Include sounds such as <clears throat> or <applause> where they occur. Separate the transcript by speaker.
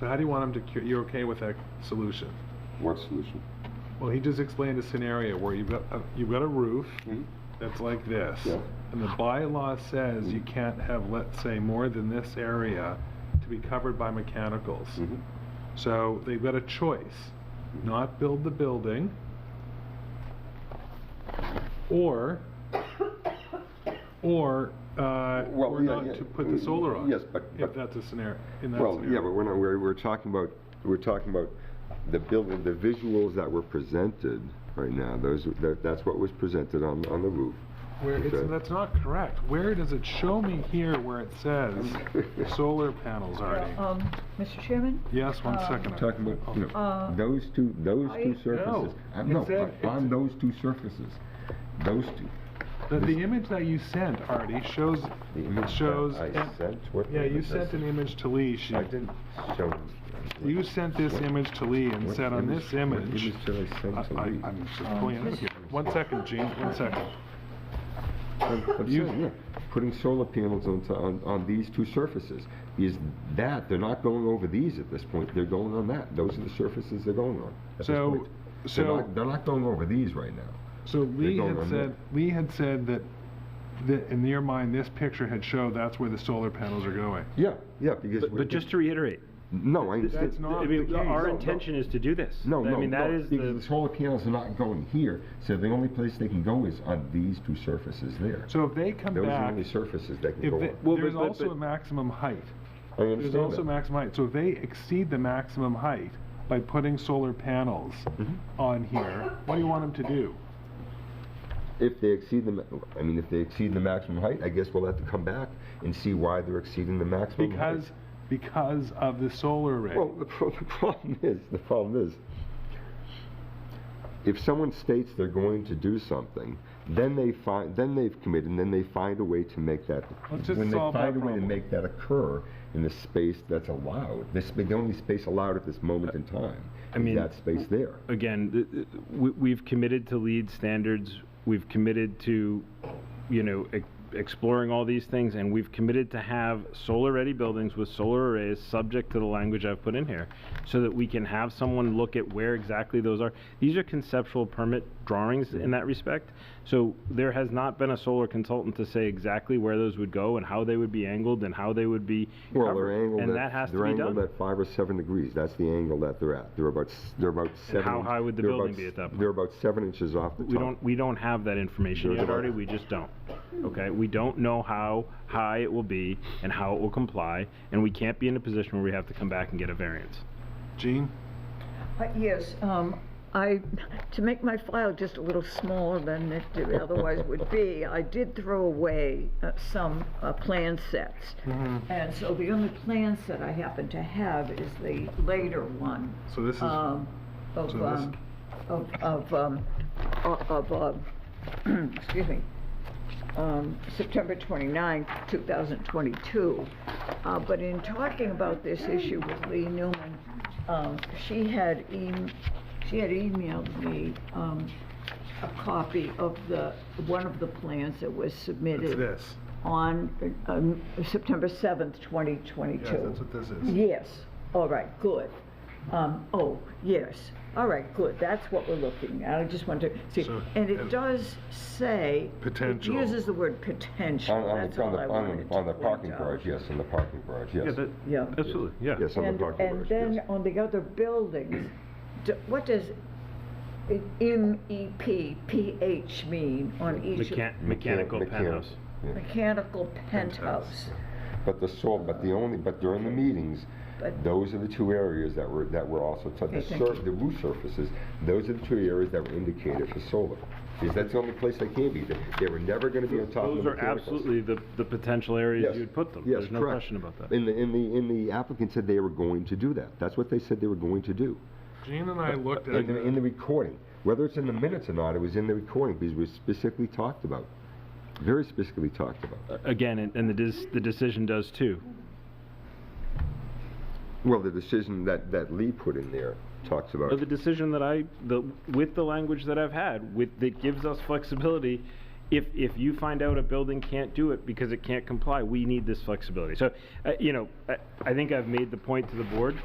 Speaker 1: So how do you want him to, cu- you're okay with that solution?
Speaker 2: What solution?
Speaker 1: Well, he just explained a scenario where you've got, a- you've got a roof
Speaker 2: Mhm.
Speaker 1: that's like this.
Speaker 2: Yeah.
Speaker 1: And the bylaw says you can't have, let's say, more than this area to be covered by mechanicals.
Speaker 2: Mhm.
Speaker 1: So they've got a choice, not build the building, or, or, uh,
Speaker 2: Well,
Speaker 1: or
Speaker 2: yeah,
Speaker 1: not
Speaker 2: yeah,
Speaker 1: to put the solar on.
Speaker 2: yes, but-
Speaker 1: If
Speaker 2: but-
Speaker 1: that's a scenario, in that
Speaker 2: Well, yeah, but
Speaker 1: scenario.
Speaker 2: we're not, we're, we're talking about, we're talking about the building, the visuals that were presented right now, those, that, that's what was presented on, on the roof.
Speaker 1: Where, it's,
Speaker 2: okay.
Speaker 1: that's not correct. Where does it, show me here where it
Speaker 2: <laughs>
Speaker 1: says solar panels, Artie.
Speaker 3: Um, Mr. Chairman?
Speaker 1: Yes, one
Speaker 3: um,
Speaker 1: second.
Speaker 2: Talking about, you know,
Speaker 3: Uh,
Speaker 2: those two, those two
Speaker 3: I-
Speaker 2: surfaces.
Speaker 1: No,
Speaker 2: Uh, No,
Speaker 1: it's a-
Speaker 2: but on
Speaker 1: it's-
Speaker 2: those two surfaces, those two.
Speaker 1: The,
Speaker 2: This-
Speaker 1: the image that you sent, Artie, shows,
Speaker 2: the image
Speaker 1: it
Speaker 2: that
Speaker 1: shows.
Speaker 2: I
Speaker 1: and-
Speaker 2: sent, what?
Speaker 1: Yeah, you
Speaker 2: image I
Speaker 1: sent an image to Lee. She,
Speaker 2: I didn't show.
Speaker 1: you sent this
Speaker 2: What-
Speaker 1: image to Lee and
Speaker 2: what
Speaker 1: said on this
Speaker 2: what
Speaker 1: image.
Speaker 2: image did I
Speaker 1: I,
Speaker 2: send to
Speaker 1: I,
Speaker 2: Lee?
Speaker 1: I'm just pulling it up here. One second, Gene, one second.
Speaker 2: <laughs> I'm- I'm
Speaker 1: You-
Speaker 2: saying, yeah, putting solar panels on, to- on, on these two surfaces. Is that, they're not going over these at this point, they're going on that. Those are the surfaces they're going on. at this
Speaker 1: So,
Speaker 2: point. They're
Speaker 1: so,
Speaker 2: not- They're not going over these right now.
Speaker 1: so Lee
Speaker 2: going
Speaker 1: had
Speaker 2: on
Speaker 1: said, Lee had said that, that in your mind, this picture had showed that's where the solar panels are going.
Speaker 2: Yeah, yeah, because.
Speaker 4: But
Speaker 2: we're-
Speaker 4: but just to reiterate,
Speaker 2: No, I understand.
Speaker 1: That's
Speaker 4: I
Speaker 1: not the
Speaker 4: mean,
Speaker 1: case.
Speaker 4: our
Speaker 2: no.
Speaker 4: intention is to do this.
Speaker 2: No, no,
Speaker 4: I mean, that
Speaker 2: no,
Speaker 4: is
Speaker 2: because
Speaker 4: the,
Speaker 2: solar panels are not going here, so the only place they can go is on these two surfaces there.
Speaker 1: So if they come
Speaker 2: Those are the
Speaker 1: back,
Speaker 2: only surfaces that can
Speaker 1: if
Speaker 2: go
Speaker 1: they,
Speaker 2: on.
Speaker 4: Well,
Speaker 1: there's
Speaker 4: but- but-
Speaker 1: also
Speaker 4: but-
Speaker 1: a maximum height.
Speaker 2: I
Speaker 1: There's
Speaker 2: understand
Speaker 1: also
Speaker 2: that.
Speaker 1: maximum height, so if they exceed the maximum height by putting solar panels on here, what do you want them to do?
Speaker 2: If they exceed the, ma- I mean, if they exceed the maximum height, I guess we'll have to come back and see why they're exceeding the maximum height.
Speaker 1: Because, because of the solar array.
Speaker 2: Well, the, pro- the problem is, the problem is, if someone states they're going to do something, then they find, then they've committed, and then they find a way to make that.
Speaker 1: Let's just
Speaker 2: when
Speaker 1: solve that
Speaker 2: they find a way to
Speaker 1: problem.
Speaker 2: make that occur in the space that's allowed, this the only space allowed at this
Speaker 1: Uh,
Speaker 2: moment in time.
Speaker 4: I
Speaker 2: is
Speaker 4: mean-
Speaker 2: that space there.
Speaker 4: again, th- th- we- we've committed to lead standards, we've committed to, you know, e- exploring all these things, and we've committed to have solar-ready buildings with solar arrays, subject to the language I've put in here, so that we can have someone look at where exactly those are. These are conceptual permit drawings in that respect, so there has not been a solar consultant to say exactly where those would go and how they would be angled and how they would be
Speaker 2: Well, they're
Speaker 4: covered,
Speaker 2: angled at,
Speaker 4: and that has to
Speaker 2: they're
Speaker 4: be
Speaker 2: angled
Speaker 4: done.
Speaker 2: at five or seven degrees. That's the angle that they're at. They're about s- they're about seven.
Speaker 4: how
Speaker 2: inch-
Speaker 4: high would the
Speaker 2: they're
Speaker 4: building
Speaker 2: about
Speaker 4: be
Speaker 2: s-
Speaker 4: at that point?
Speaker 2: They're about seven inches off the top.
Speaker 4: We don't, we don't have that information
Speaker 2: There's
Speaker 4: yet,
Speaker 2: a lot.
Speaker 4: Artie, we just don't. Okay, we don't know how high it will be and how it will comply, and we can't be in a position where we have to come back and get a variance.
Speaker 1: Gene?
Speaker 3: Uh, Yes, um, I, to make my file just a little smaller than it d- otherwise would be, I did throw away uh, some uh, plan sets.
Speaker 1: Mm-hmm.
Speaker 3: And so the only plan set I happen to have is the later one.
Speaker 1: So this is-
Speaker 3: um, Of,
Speaker 1: so this-
Speaker 3: um, of, of, um, o- of, um, <clears throat> excuse me, um, September 29, 2022. Uh, But in talking about this issue with Lee Newman, um, she had, em- she had emailed me um, a copy of the, one of the plans that was
Speaker 1: It's
Speaker 3: submitted
Speaker 1: this.
Speaker 3: on um, September 7th,
Speaker 1: Yes,
Speaker 3: 2022.
Speaker 1: that's what this is.
Speaker 3: Yes, all right, good. Um, oh, yes, all right, good, that's what we're looking at, I just want to see.
Speaker 1: So-
Speaker 3: And it
Speaker 2: uh,
Speaker 1: and-
Speaker 3: does say. it
Speaker 1: Potential.
Speaker 3: uses the word
Speaker 2: On,
Speaker 3: potential,
Speaker 2: on
Speaker 3: that's
Speaker 2: the, on
Speaker 3: all
Speaker 2: the,
Speaker 3: I
Speaker 2: on
Speaker 3: wanted
Speaker 2: the,
Speaker 3: to
Speaker 2: on the
Speaker 3: point
Speaker 2: parking
Speaker 3: out.
Speaker 2: garage, yes, on the parking garage, yes.
Speaker 3: Yeah.
Speaker 4: absolutely, yeah.
Speaker 2: Yes, on the
Speaker 3: And,
Speaker 2: parking
Speaker 3: and
Speaker 2: garage,
Speaker 3: then
Speaker 2: yes.
Speaker 3: on the other buildings, d- what does E i- MEPPH mean on each? of-
Speaker 4: Mechan- Mechanical
Speaker 2: Mechanic-
Speaker 4: penthouse.
Speaker 2: yeah.
Speaker 3: Mechanical penthouse.
Speaker 2: But the sol, but the only, but during the meetings,
Speaker 3: But-
Speaker 2: those are the two areas that were, that were also, t-
Speaker 3: Okay,
Speaker 2: the
Speaker 3: thank
Speaker 2: sur,
Speaker 3: you.
Speaker 2: the roof surfaces, those are the two areas that were indicated for solar. Because that's the only place they can be. They, they were never gonna be on top of the
Speaker 4: Those are
Speaker 2: mechanicals.
Speaker 4: absolutely the, the potential areas
Speaker 2: Yes.
Speaker 4: you'd put them.
Speaker 2: Yes,
Speaker 4: There's no
Speaker 2: correct.
Speaker 4: question about that.
Speaker 2: And the, and the, and the applicant said they were going to do that. That's what they said they were going to do.
Speaker 1: Gene and I looked at
Speaker 2: In the, in
Speaker 1: it.
Speaker 2: the recording, whether it's in the minutes or not, it was in the recording because it was specifically talked about. Very specifically talked about.
Speaker 4: Again, and, and the dis, the decision does too.
Speaker 2: Well, the decision that, that Lee put in there talks about.
Speaker 4: But the decision that I, the, with the language that I've had, with, that gives us flexibility, if, if you find out a building can't do it because it can't comply, we need this flexibility. So, uh, you know, I, I think I've made the point to the board,